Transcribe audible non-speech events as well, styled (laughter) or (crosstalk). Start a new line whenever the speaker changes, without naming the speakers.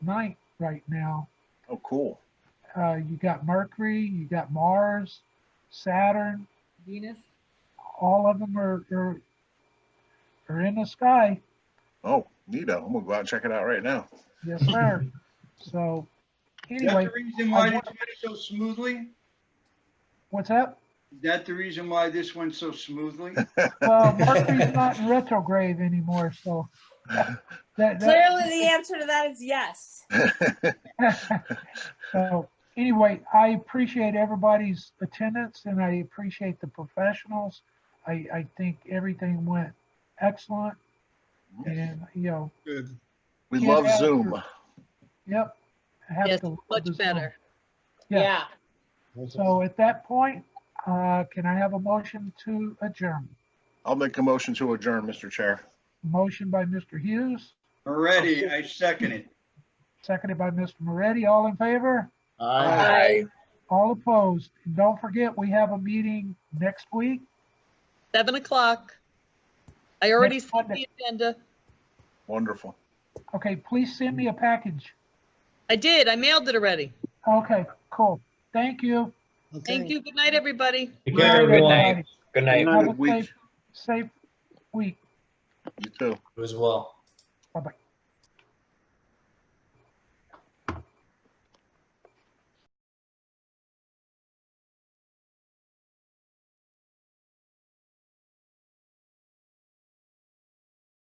ninth right now.
Oh, cool.
Uh, you got Mercury, you got Mars, Saturn,
Venus.
all of them are, are, are in the sky.
Oh, neato. I'm gonna go out and check it out right now. (laughs)
Yes, sir. So
Is
anyway,
that the reason why
I
this
want-
went so smoothly?
what's up?
Is that the reason why this went so smoothly?
Well, Mercury's not in retrograde anymore, so that, that
Clearly, the answer to that is yes.
(laughs) so anyway, I appreciate everybody's attendance and I appreciate the professionals. I, I think everything went excellent and, you know,
Good.
we
Yeah.
love Zoom.
Yep. I have
Yes,
to look
much
this up.
better.
Yeah.
Yeah.
So at that point, uh, can I have a motion to adjourn?
I'll make a motion to adjourn, Mr. Chair.
Motion by Mr. Hughes,
Already, I second it.
seconded by Mr. Moretti. All in favor?
Aye.
All opposed? And don't forget, we have a meeting next week.
Seven o'clock. I already
Next
sent
Monday.
the agenda.
Wonderful.
Okay, please send me a package.
I did. I mailed it already.
Okay, cool. Thank you.
Thank you. Good night, everybody.
Take care,
Good
everyone.
night.
Good night.
Have a
Good week.
safe, safe week.
You too.
You as well.
Bye-bye.